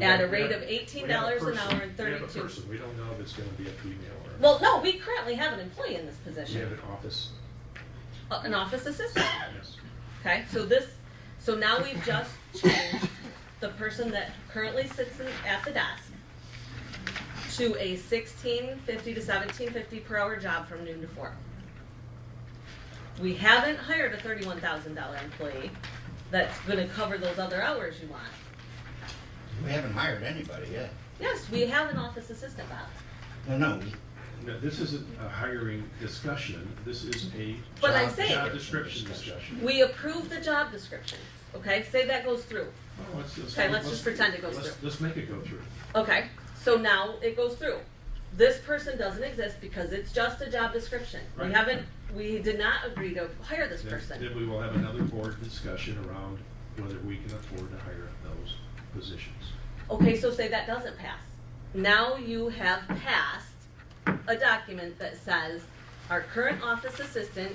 at We a have- rate of eighteen dollars we an have a hour and person- We have a thirty-two. person, we don't know if it's gonna be a female or. Well, no, we currently have an employee in this We have position, an office, uh, an office assistant. yes. Okay, so this, so now we've just changed the person that currently sits in, at the desk to a sixteen fifty to seventeen fifty per hour job from noon to four. We haven't hired a thirty-one thousand dollar employee that's gonna cover those other hours you want. We haven't hired anybody yet. Yes, we have an office assistant, Bob. No, no, we- No, this isn't a hiring discussion, this is a But I'm job, saying- job description discussion. We approve the job descriptions, okay? Say that goes through. Well, let's- let's- Okay, let's just pretend it goes let's- through. Let's make it go through. Okay, so now it goes through. This person doesn't exist because it's just a job description. We Right. haven't, we did not agree to hire this Then- Then person. we will have another board discussion around whether we can afford to hire those positions. Okay, so say that doesn't pass. Now you have passed a document that says our current office assistant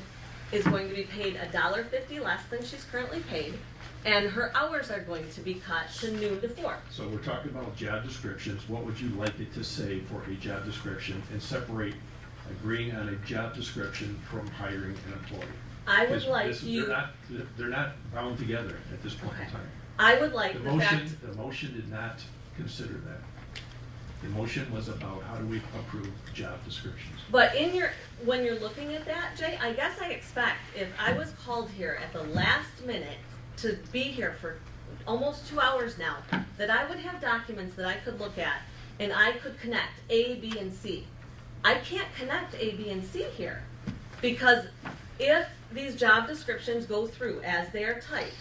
is going to be paid a dollar fifty less than she's currently paid, and her hours are going to be cut to noon to four. So we're talking about job descriptions, what would you like it to say for a job description? And separate agreeing on a job description from hiring an employee. I would Because like this- you, They're not, they're not bound together at this point in Okay. time. I would like The the fact, motion, the motion did not consider that. The motion was about how do we approve job descriptions? But in your, when you're looking at that, Jay, I guess I expect if I was called here at the last minute to be here for almost two hours now, that I would have documents that I could look at and I could connect A, B, and C. I can't connect A, B, and C here because if these job descriptions go through as they are typed,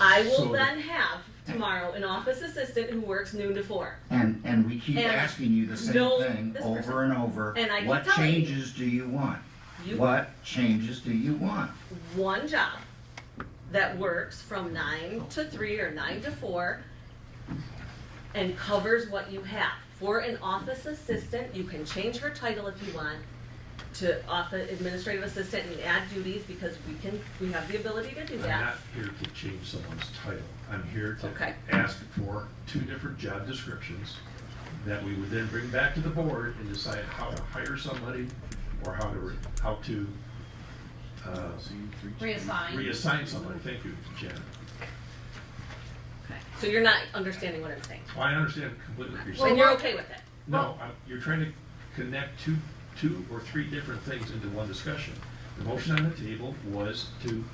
I So will the- then have tomorrow an office assistant who works noon to four. and, and we keep And asking you the no, same thing this person- over and over. And I keep What telling you. changes do you want? You What changes do you want? one job that works from nine to three or nine to four and covers what you have. For an office assistant, you can change her title if you want to office administrative assistant and add duties because we can, we have the ability to do I'm that. not here to change someone's title. I'm here Okay. to ask for two different job descriptions that we would then bring back to the board and decide how to hire somebody or how to, re- how to uh, Reassign. reassign somebody. Thank you, Janet. So you're not understanding what I'm saying. Well, I understand completely what you're Well, And saying. you're what- okay with it? No, I'm- you're trying to connect two, two or three different things into one discussion. The motion on the table was to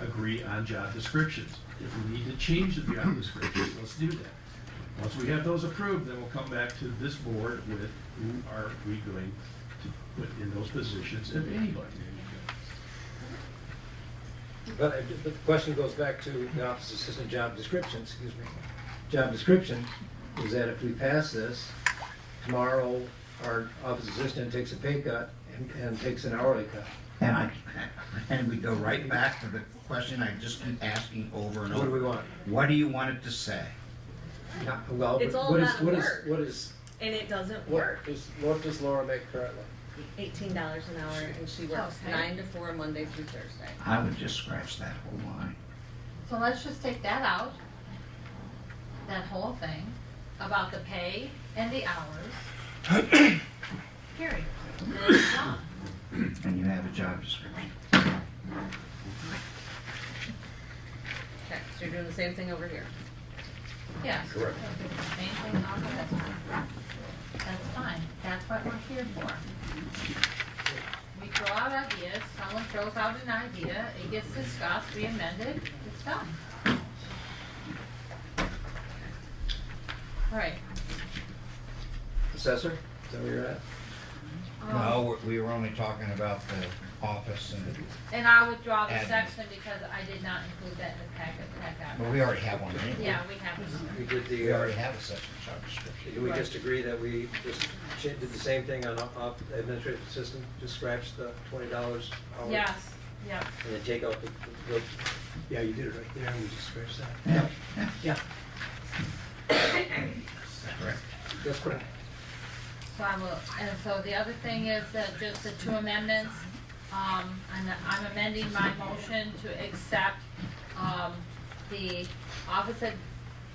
agree on job descriptions. If we need to change the job descriptions, let's do that. Once we have those approved, then we'll come back to this board with who are we going to put in those positions, if anybody. But I- but the question goes back to the office assistant job description, excuse me, job description, is that if we pass this, tomorrow, our office assistant takes a pay cut and, and takes an hourly cut. And I, and we go right back to the question I just keep asking over and over. What do we want? What do you want it to say? Not- Well, It's all what is, about what is, work. what is, And it doesn't what work. is, what does Laura make currently? Eighteen dollars an hour and she works Okay. nine to four, Monday through Thursday. I would just scratch that whole line. So let's just take that out, that whole thing about the pay and the hours. Period. Then it's done. And you have a job description. Okay, so you're doing the same thing over here. Yes. Correct. Same thing, also, that's fine. That's fine, that's what we're here for. We throw out ideas, someone throws out an idea, it gets discussed, we amend it, it's done. All Right. Assessor, is that where you're at? Oh. um, No, we we were only talking about the office and, And I withdraw the Admin. section because I did not include that in the packet that I but got. we already have one anyway. Yeah, we have it. We did We the, already uh, have a section job description. did we just agree that we just cha- did the same thing on op- op- administrative assistant, just scratch the twenty dollars hour? Yes, yeah. And then take out the, the, the- yeah, you did it right there, we just scratched that. Yeah, yeah, Yeah. correct. That's correct. So I will, and so the other thing is that just the two amendments, um, and I'm amending my motion to accept, um, the office ad-